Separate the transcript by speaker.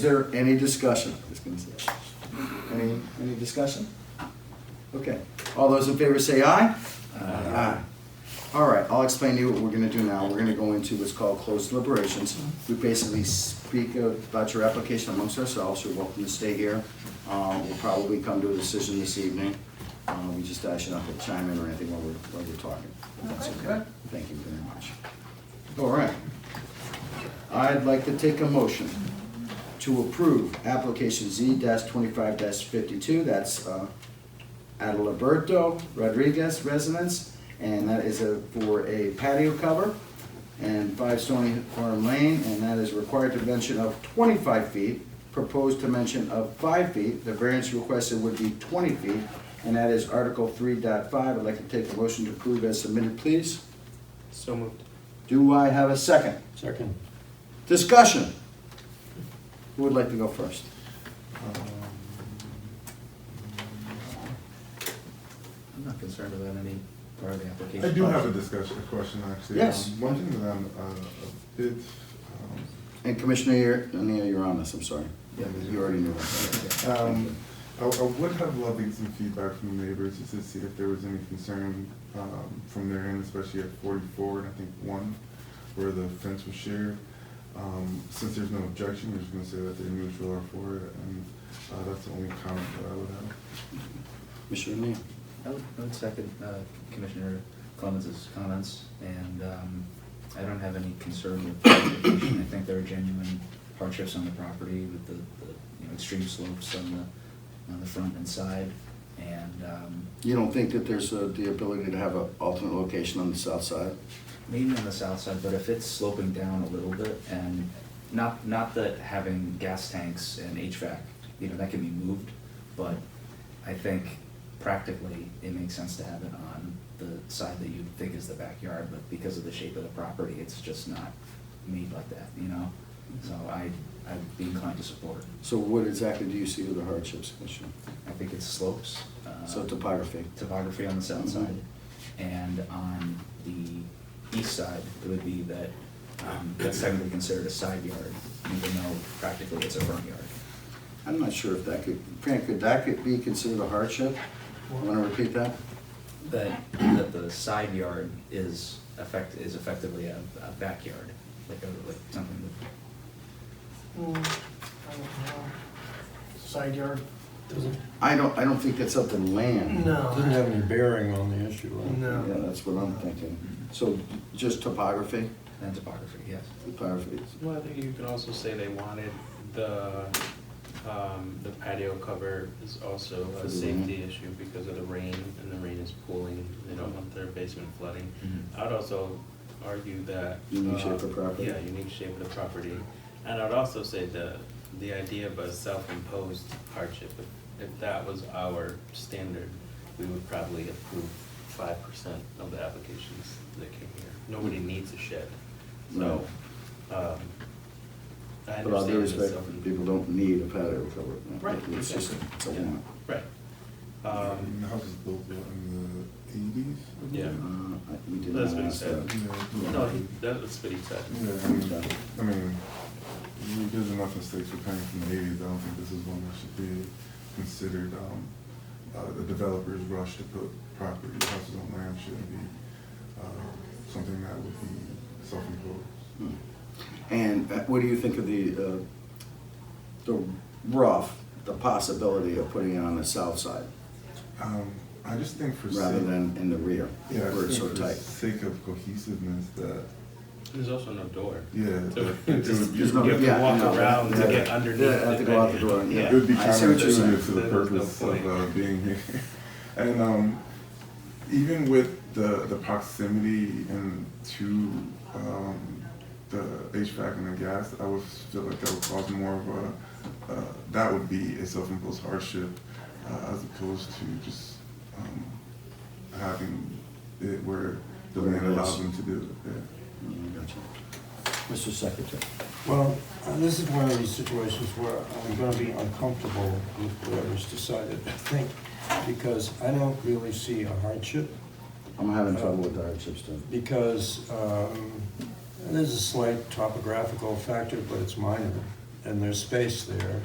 Speaker 1: Is there any discussion? Just gonna say that. Any, any discussion? Okay, all those in favor say aye? Aye. All right, I'll explain to you what we're gonna do now. We're gonna go into what's called closed deliberations. We basically speak about your application amongst ourselves. You're welcome to stay here. Uh, we'll probably come to a decision this evening. Uh, we just ask you not to chime in or anything while we're, while we're talking. if That's okay. Thank you very much. All right. I'd like to take a motion to approve application Z twenty-five fifty-two, that's uh, Adalberto Rodriguez residence, and that is a, for a patio cover and five Stony Farm Lane, and that is required dimension of twenty-five feet, proposed dimension of five feet, the variance requested would be twenty feet, and that is Article 3.5. dot five, I'd like to take a motion to approve as submitted, please.
Speaker 2: So moved.
Speaker 1: Do I have a second?
Speaker 3: Second.
Speaker 1: Discussion. Who would like to go first?
Speaker 4: I'm not concerned about any part of the application.
Speaker 5: I do have a discussion, a question actually.
Speaker 1: Yes.
Speaker 5: Um, One thing that I'm uh, a bit, um,
Speaker 1: And Commissioner, you're, Neil, you're on this, I'm sorry.
Speaker 5: Yeah.
Speaker 1: You already knew that.
Speaker 5: um, I I would have loved to get some feedback from the neighbors just to see if there was any concern um, from their end, especially at forty-four and I think one, where the fence was shared. Um, Since there's no objection, we're just gonna say that they're neutral or for it, and uh, that's the only comment that I would have.
Speaker 1: Commissioner Neil.
Speaker 4: I would I would Oh, second uh, Commissioner Clemens's comments, and um, I don't have any concern with the application. I think there are genuine hardships on the property with the, the, you know, extreme slopes on the, on the front and side, and um,
Speaker 1: You don't think that there's uh, the ability to have an alternate location on the south side?
Speaker 4: maybe on the south side, but if it's sloping down a little bit, and not, not that having gas tanks and HVAC, you know, that can be moved, but I think practically, it makes sense to have it on the side that you think is the backyard, but because of the shape of the property, it's just not made like that, you know? So I, I'd be inclined to support.
Speaker 1: So what exactly do you see are the hardships, Commissioner?
Speaker 4: I think it's slopes. uh,
Speaker 1: So topography.
Speaker 4: topography on the south
Speaker 1: Mhm.
Speaker 4: side, and on the east side, it would be that, um, that's technically considered a side yard, even though practically it's a front yard.
Speaker 1: I'm not sure if that could, Fran, could that could be considered a hardship? Want to repeat that?
Speaker 4: That, that the side yard is effect, is effectively a, a backyard, like a, like something that,
Speaker 2: Hmm, I don't know. Side yard?
Speaker 3: Doesn't,
Speaker 1: I don't, I don't think that's up to land.
Speaker 3: doesn't
Speaker 2: No.
Speaker 3: have any bearing on the issue. I don't
Speaker 2: No.
Speaker 1: Yeah, that's what I'm thinking. So just topography?
Speaker 4: and topography, yes.
Speaker 1: Topography.
Speaker 6: Well, I think you could also say they wanted the, um, the patio cover is also
Speaker 1: For
Speaker 6: a
Speaker 1: the
Speaker 6: safety
Speaker 1: rain.
Speaker 6: issue because of the rain, and the rain is pooling, they don't want their basement flooding.
Speaker 4: Mhm.
Speaker 6: I'd also argue that.
Speaker 1: Unique
Speaker 6: uh,
Speaker 1: Mm-hmm. shape of property.
Speaker 6: Yeah, unique shape of the property, and I'd also say the, the idea of a self-imposed hardship, if, if that was our standard, we would probably approve five percent of the applications that came here. Nobody
Speaker 1: Hmm.
Speaker 6: needs a shed, so, um, I
Speaker 1: But all due
Speaker 6: understand the
Speaker 1: respect,
Speaker 6: self.
Speaker 1: people don't need a patio cover.
Speaker 6: Right,
Speaker 1: It's just,
Speaker 6: exactly.
Speaker 1: it's a
Speaker 6: Yeah.
Speaker 1: want.
Speaker 6: Right,
Speaker 5: And
Speaker 6: um,
Speaker 5: The house was built what, in the eighties?
Speaker 6: Yeah.
Speaker 1: Uh, I- We did
Speaker 6: That's
Speaker 1: not
Speaker 6: what he
Speaker 1: ask uh,
Speaker 6: said.
Speaker 1: that.
Speaker 6: no, he- that was what he said.
Speaker 5: Yeah, I mean, I mean, we- there's enough mistakes we're coming from the eighties, I don't think this is one that should be considered, um, uh, the developer's rush to put property, houses on land shouldn't be, uh, something that would be self-imposed.
Speaker 1: Hmm. And uh, what do you think of the, uh, the rough, the possibility of putting it on the south side
Speaker 5: Um, I just think for
Speaker 1: rather
Speaker 5: sake-
Speaker 1: than in the rear
Speaker 5: Yeah, I
Speaker 1: where it's
Speaker 5: just
Speaker 1: so
Speaker 5: think for
Speaker 1: tight?
Speaker 5: sake of cohesiveness that,
Speaker 6: There's also no door.
Speaker 5: yeah.
Speaker 6: So
Speaker 5: that- it would
Speaker 6: just-
Speaker 5: be-
Speaker 6: You
Speaker 1: There's no-
Speaker 6: have to
Speaker 1: yeah,
Speaker 6: walk
Speaker 1: no,
Speaker 6: around to
Speaker 5: yeah.
Speaker 6: get underneath.
Speaker 1: Yeah, I have to go out the door, yeah.
Speaker 5: It would be
Speaker 1: I see what you're
Speaker 5: counterintuitive to the
Speaker 6: saying. There's no
Speaker 5: purpose of
Speaker 6: point.
Speaker 5: uh, being here. And um, even with the, the proximity and to um, the HVAC and the gas, I would feel like that would cause more of a, uh, that would be a self-imposed hardship uh, as opposed to just um, having it where the
Speaker 1: Where it
Speaker 5: land
Speaker 1: is.
Speaker 5: allows them to do it. Yeah.
Speaker 1: Mm, gotcha. Mr. Secretary,
Speaker 3: Well, uh, this is one of these situations where I'm gonna be uncomfortable with whoever's decided, I think, because I don't really see a hardship,
Speaker 1: I'm having trouble with the hardships too.
Speaker 3: because um, there's a slight topographical factor, but it's minor. and there's space there,